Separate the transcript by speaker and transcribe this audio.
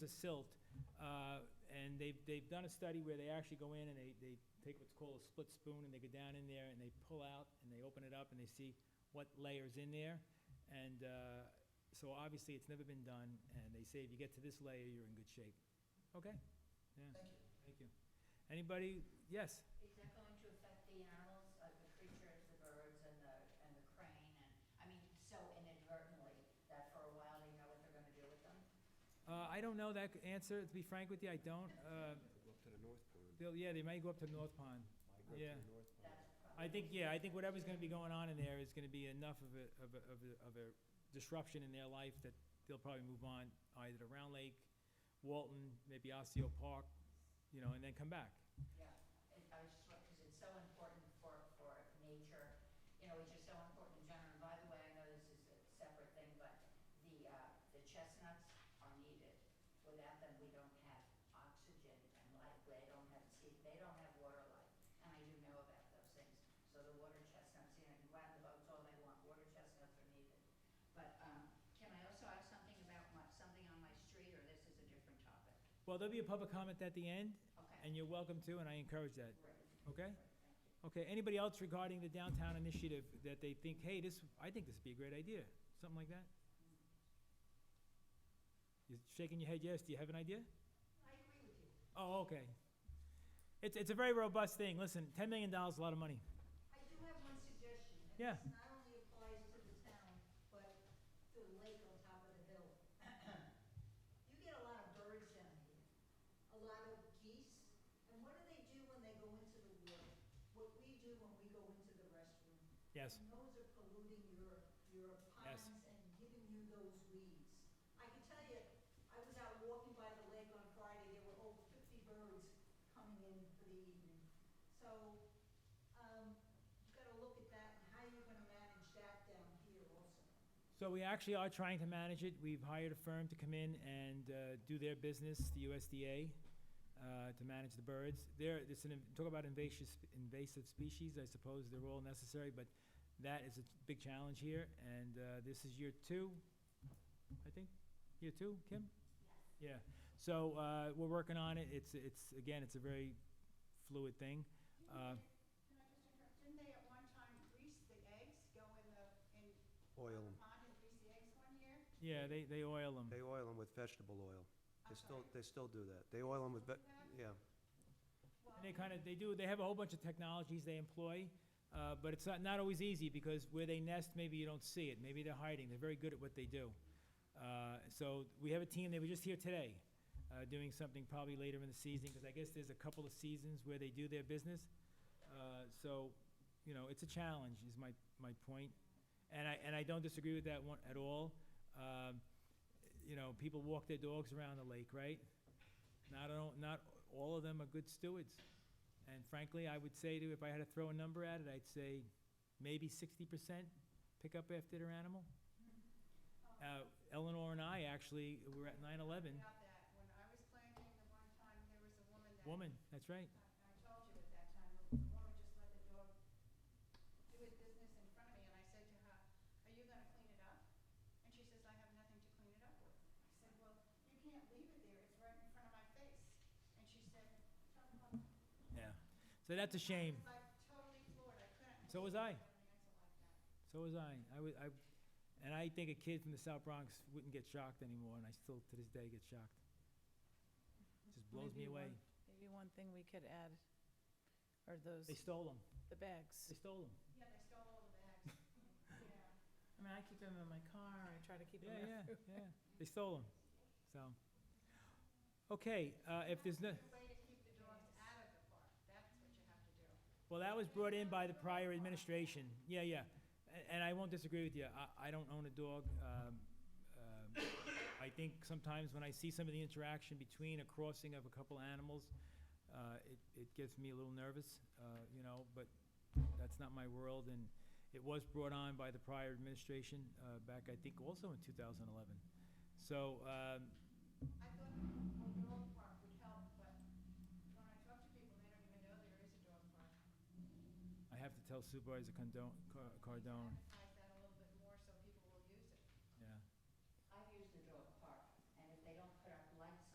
Speaker 1: the silt. uh, And they've, they've done a study where they actually go in and they, they take what's called a split spoon and they go down in there and they pull out and they open it up and they see what layer's in there. And uh, so obviously, it's never been done, and they say if you get to this layer, you're in good shape. Okay? Yeah. Thank you. Anybody? Yes?
Speaker 2: Is that going to affect the animals, like the creatures, the birds and the, and the crane and, I mean, so inadvertently that for a while they know what they're gonna do with them?
Speaker 1: Uh, I don't know that c- answer, to be frank with you, I don't. Uh,
Speaker 3: Go up to the North Pond.
Speaker 1: They'll, yeah, they might go up to North Pond.
Speaker 3: Migrate
Speaker 1: Yeah.
Speaker 3: to the North Pond.
Speaker 2: That's
Speaker 1: I
Speaker 2: probably.
Speaker 1: think, yeah, I think whatever's gonna be going on in there is gonna be enough of a, of a, of a, of a disruption in their life that they'll probably move on either to Round Lake, Walton, maybe Osseo Park, you know, and then come back.
Speaker 2: Yeah, It- I was just, because it's so important for, for nature, you know, which is so important in general. And by the way, I know this is a separate thing, but the, uh, the chestnuts are needed. Without them, we don't have oxygen and life, they don't have, see, they don't have water life. And I do know about those things. So the water chestnuts, you know, you can the boats all they want, water chestnuts are needed. But, um, can I also ask something about my, something on my street, or this is a different topic?
Speaker 1: Well, there'll be a public comment at the end,
Speaker 2: Okay,
Speaker 1: and you're welcome to, and I encourage that,
Speaker 2: great,
Speaker 1: okay?
Speaker 2: great, thank you.
Speaker 1: Okay, anybody else regarding the downtown initiative that they think, hey, this, I think this would be a great idea, something like that? You're shaking your head yes, do you have an idea?
Speaker 2: I agree with you.
Speaker 1: Oh, okay. It's, it's a very robust thing, listen, ten million dollars is a lot of money.
Speaker 4: I do have one suggestion. and
Speaker 1: Yeah.
Speaker 4: This not only applies to the town, but to the lake on top of the hill. You get a lot of birds down here, a lot of geese, and what do they do when they go into the water? What we do when we go into the restroom.
Speaker 1: Yes,
Speaker 4: And those are polluting your, your
Speaker 1: Yes.
Speaker 4: ponds and giving you those weeds. I can tell you, I was out walking by the lake on Friday, there were over fifty birds coming in for the evening. So, um, you gotta look at that and how you're gonna manage that down here also.
Speaker 1: so we actually are trying to manage it, we've hired a firm to come in and, uh, do their business, the USDA, uh, to manage the birds. There, it's an, talk about invasive, invasive species, I suppose they're all necessary, but that is a big challenge here, and, uh, this is year two, I think, year two, Kim? Yeah, so, uh, we're working on it, it's, it's, again, it's a very fluid thing. Uh,
Speaker 5: Can I just interrupt? Didn't they at one time grease the eggs, go in the, in
Speaker 3: Oil
Speaker 5: the
Speaker 3: 'em.
Speaker 5: pond and grease the eggs one year?
Speaker 1: Yeah, they, they oil them.
Speaker 3: They oil them with vegetable oil. They
Speaker 5: I'm
Speaker 3: still,
Speaker 5: sorry.
Speaker 3: they still do that. They oil them with, ve- yeah.
Speaker 1: And they kind of, they do, they have a whole bunch of technologies they employ, uh, but it's not, not always easy, because where they nest, maybe you don't see it, maybe they're hiding, they're very good at what they do. Uh, so, we have a team, they were just here today, uh, doing something probably later in the season, because I guess there's a couple of seasons where they do their business. Uh, so, you know, it's a challenge, is my, my point, and I, and I don't disagree with that one at all. Um, you know, people walk their dogs around the lake, right? Not, all- not all of them are good stewards. And frankly, I would say to, if I had to throw a number at it, I'd say maybe sixty percent pick up after their animal. Uh, Eleanor and I actually were at nine eleven,
Speaker 5: About that, when I was planting the one time, there was a woman that.
Speaker 1: woman, that's right.
Speaker 5: I I told you at that time, the the woman just let the dog do its business in front of me, and I said to her, are you gonna clean it up? And she says, I have nothing to clean it up with. I said, well, you can't leave it there, it's right in front of my face. And she said, "Tell the mother."
Speaker 1: Yeah. So that's a shame.
Speaker 5: I was like totally floored, I couldn't.
Speaker 1: So was I.
Speaker 5: believe I had an answer like that.
Speaker 1: So was I. I was, I, and I think a kid from the South Bronx wouldn't get shocked anymore, and I still to this day get shocked. Just blows me
Speaker 6: Maybe
Speaker 1: away.
Speaker 6: one- Maybe one thing we could add are those,
Speaker 1: They stole them.
Speaker 6: the bags.
Speaker 1: They stole them.
Speaker 5: Yeah, they stole all the bags, yeah.
Speaker 6: I mean, I keep them in my car, I try to keep them
Speaker 1: Yeah,
Speaker 6: everywhere.
Speaker 1: yeah, yeah. They stole them. So, okay, uh, if there's no.
Speaker 5: There's a way to keep the dogs out of the park, that's what you have to do.
Speaker 1: Well, that was brought in by the prior administration. Yeah, yeah. A- And I won't disagree with you. I, I don't own a dog. Um, um, I think sometimes when I see some of the interaction between a crossing of a couple animals, uh, it, it gets me a little nervous, uh, you know, but that's not my world. And it was brought on by the prior administration, uh, back, I think, also in two thousand eleven. So, um,
Speaker 5: I thought a dog park would help, but when I talk to people, they don't even know there is a dog park.
Speaker 1: I have to tell Supervisor Condon, Car- Cardone.
Speaker 5: Advertise